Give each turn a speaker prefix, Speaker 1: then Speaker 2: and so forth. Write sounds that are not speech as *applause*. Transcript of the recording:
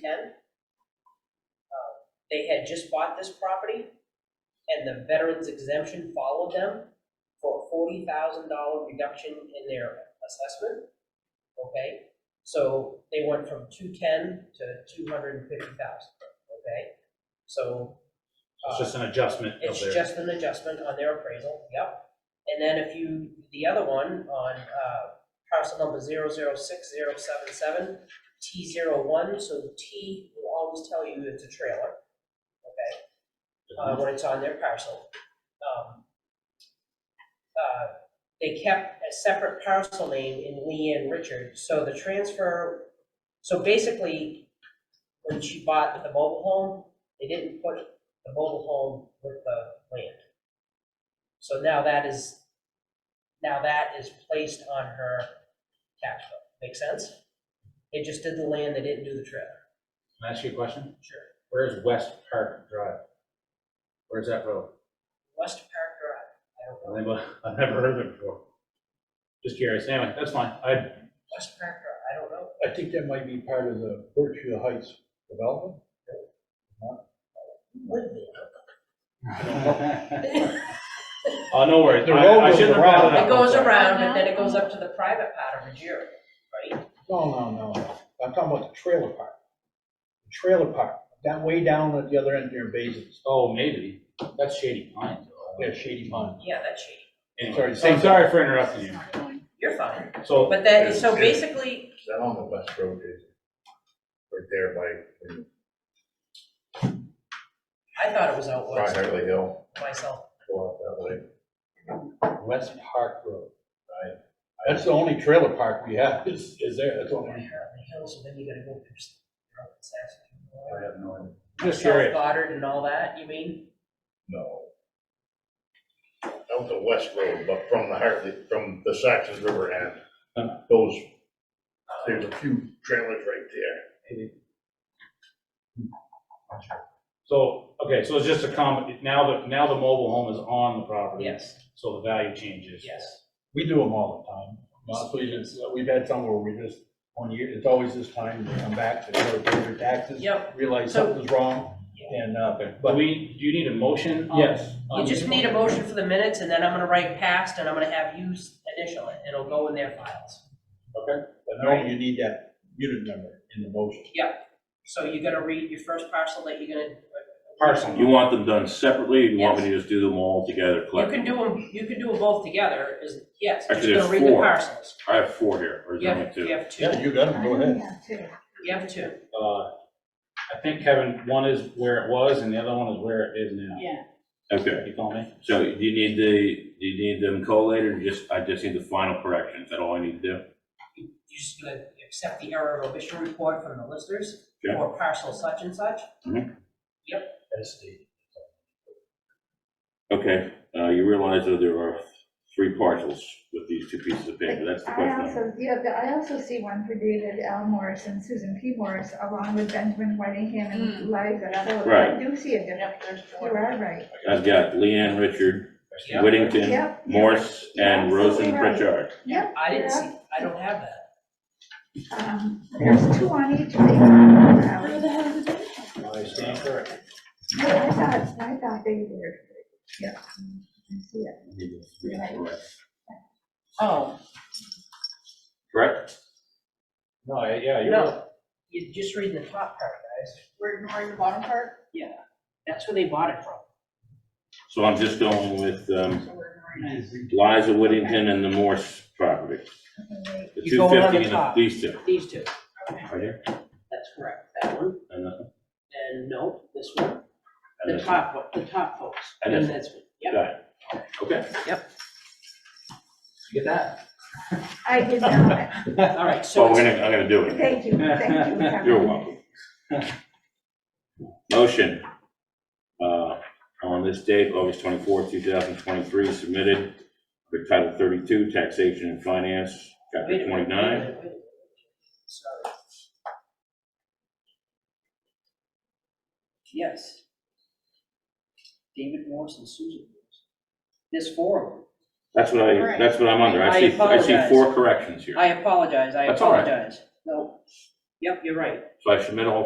Speaker 1: ten. Uh, They had just bought this property, and the veterans exemption followed them for a forty thousand dollar reduction in their assessment, okay? So they went from two-ten to two hundred and fifty thousand, okay? So.
Speaker 2: It's
Speaker 1: uh,
Speaker 2: just an adjustment of
Speaker 1: It's
Speaker 2: their,
Speaker 1: just an adjustment on their appraisal, yep. And then if you, the other one on, uh, parcel number zero zero six zero seven seven, T zero one, so the T will always tell you it's a trailer, uh, when it's on their parcel. Um, uh, They kept a separate parcel name in Leanne Richard, so the transfer, so basically, when she bought the mobile home, they didn't put the mobile home with the land. So now that is, now that is placed on her tax bill, make sense? They just did the land, they didn't do the trailer.
Speaker 2: can I ask you a question?
Speaker 1: Sure.
Speaker 2: Where's West Park Drive? Where's that road?
Speaker 1: West Park Drive, I don't know.
Speaker 2: I've never, *laughs* I've never heard of it before. Just curious, anyway, that's fine, I,
Speaker 1: West Park Drive, I don't know.
Speaker 3: I think that might be part of the Berkshire Heights development.
Speaker 1: Would be.
Speaker 2: oh, no worries,
Speaker 3: The
Speaker 2: I,
Speaker 3: road
Speaker 2: I
Speaker 3: goes
Speaker 2: shouldn't have
Speaker 3: around.
Speaker 2: brought it up.
Speaker 1: It goes
Speaker 2: I'm sorry.
Speaker 1: around and then it goes up to the private part of Ruggiero, right?
Speaker 3: No, no, no, no. I'm talking about the trailer park. The Trailer park, down, way down at the other end near Basins.
Speaker 2: Oh, maybe, that's Shady Pines. though.
Speaker 3: Yeah, Shady Pond.
Speaker 1: Yeah, that's shady.
Speaker 2: Anyway,
Speaker 3: Sorry,
Speaker 2: I'm
Speaker 3: same-
Speaker 2: sorry for interrupting you,
Speaker 1: You're fine.
Speaker 2: so,
Speaker 1: But that, so
Speaker 4: Yeah.
Speaker 1: basically,
Speaker 4: Is that on the west road, Jason? Right there by
Speaker 1: I thought it was out
Speaker 4: Rock
Speaker 1: west
Speaker 4: Hartley Hill,
Speaker 1: myself.
Speaker 4: go out that way.
Speaker 3: West Park Road. That's the only trailer park we have is, is there, that's the
Speaker 1: I
Speaker 3: only.
Speaker 1: heard the hills, and then you gotta go through. s- through Saskatoon.
Speaker 4: I have no idea.
Speaker 2: just
Speaker 1: South
Speaker 2: curious,
Speaker 1: Goddard and all that, you mean?
Speaker 4: No. Out the west road, but from the Hartley, from the Saxon River end, those, there's a few trailers right there.
Speaker 2: so, okay, so it's just a comment, now that, now the mobile home is on the property.
Speaker 1: Yes,
Speaker 2: So the value changes.
Speaker 1: yes.
Speaker 3: We do them all the time. Honestly, it's, we've had some where we just, one year, it's always this time, they come back, they go pay their taxes.
Speaker 1: Yep.
Speaker 3: Realize
Speaker 1: So-
Speaker 3: something's wrong and, uh,
Speaker 2: But
Speaker 3: but,
Speaker 2: we, do you need a motion? on-
Speaker 3: yes. Um,
Speaker 2: on
Speaker 1: Um, You
Speaker 2: this
Speaker 1: just need a motion for the minutes, and then I'm gonna write past, and I'm gonna have you s- initial it, it'll go in their files.
Speaker 3: Okay. But normally you need that unit number in the motion.
Speaker 1: So you're gonna read your first parcel that you're gonna.
Speaker 2: Parcel.
Speaker 5: You want them done separately, or you want me to just do them all together
Speaker 1: You can
Speaker 5: collectively?
Speaker 1: do them, you can do them both together, is, yes, I'm just
Speaker 5: Actually,
Speaker 1: gonna
Speaker 5: there's
Speaker 1: read the
Speaker 5: four.
Speaker 1: parcels.
Speaker 5: I have four here, or is
Speaker 1: You
Speaker 5: there
Speaker 1: have,
Speaker 5: only
Speaker 1: you
Speaker 5: two?
Speaker 1: have two,
Speaker 3: Yeah, you got it, go ahead.
Speaker 1: you have two.
Speaker 2: Uh, I think, Kevin, one is where it was and the other one is where it is now.
Speaker 6: Yeah,
Speaker 5: Okay,
Speaker 2: You follow me?
Speaker 5: so do you need the, do you need them collated, or just, I just need the final correction, is that all I need to do?
Speaker 1: You're just gonna accept the error of issue report from the listers
Speaker 5: Yeah.
Speaker 1: for parcel such and such.
Speaker 3: That's the-
Speaker 5: Okay, uh, you realize that there are three parcels with these two pieces of paper, that's the
Speaker 6: I
Speaker 5: question.
Speaker 6: also, yeah, but I also see one for David L. Morris and Susan P. Morris, along with Benjamin Whitingham and Liza. So I
Speaker 5: Right.
Speaker 6: do see a difference. You are right.
Speaker 5: I've got Leanne Richard,
Speaker 1: Yeah.
Speaker 5: Whittington,
Speaker 6: Yep.
Speaker 5: Morse, and
Speaker 6: You're absolutely
Speaker 5: Rosen
Speaker 6: right.
Speaker 5: Pritchard.
Speaker 6: Yep.
Speaker 1: I didn't see, I don't have that.
Speaker 6: Um, There's two on each. Where the hell
Speaker 3: I
Speaker 2: Uh,
Speaker 3: stand corrected.
Speaker 6: I thought, I thought they were. Yep. I see it.
Speaker 1: Oh.
Speaker 5: Correct?
Speaker 2: No, I- yeah, you're.
Speaker 1: No, you're just reading the top part, guys.
Speaker 7: We're ignoring the bottom part,
Speaker 1: That's where they bought it from.
Speaker 5: So I'm just going with, um,
Speaker 7: so we're ignoring
Speaker 5: Liza Whittington and the Morse property.
Speaker 6: Okay, wait.
Speaker 5: The
Speaker 1: You're going on
Speaker 5: 250
Speaker 1: the
Speaker 5: and the-
Speaker 1: top.
Speaker 5: these two.
Speaker 1: These two.
Speaker 5: Right here?
Speaker 1: That's correct, that one,
Speaker 5: And the-
Speaker 1: and no, this one,
Speaker 5: and
Speaker 1: the
Speaker 5: the-
Speaker 1: top one, the top folks,
Speaker 5: And
Speaker 1: and
Speaker 5: this
Speaker 1: this
Speaker 5: one.
Speaker 1: one, yep.
Speaker 5: Got it. Okay.
Speaker 2: Get that?
Speaker 6: I did not.
Speaker 1: All right,
Speaker 5: Oh,
Speaker 1: so
Speaker 5: I'm
Speaker 1: it's-
Speaker 5: gonna, I'm gonna do it.
Speaker 6: Thank you, thank you. Kevin.
Speaker 5: You're
Speaker 1: *laughs*
Speaker 5: welcome. Motion, uh, on this date, August twenty-fourth, two thousand twenty-three, submitted for Title thirty-two, Taxation and Finance,
Speaker 1: wait
Speaker 5: Chapter
Speaker 1: a minute, wait a
Speaker 5: twenty-nine.
Speaker 1: minute, wait a minute. Sorry. Yes. David Morse and Susan Morse. There's four of them.
Speaker 5: That's what I,
Speaker 7: Right.
Speaker 5: that's what I'm under. I
Speaker 1: I
Speaker 5: see, I see
Speaker 1: apologize.
Speaker 5: four corrections here.
Speaker 1: I apologize, I
Speaker 5: That's all right.
Speaker 1: apologize. No, yep, you're right.
Speaker 5: So I submit all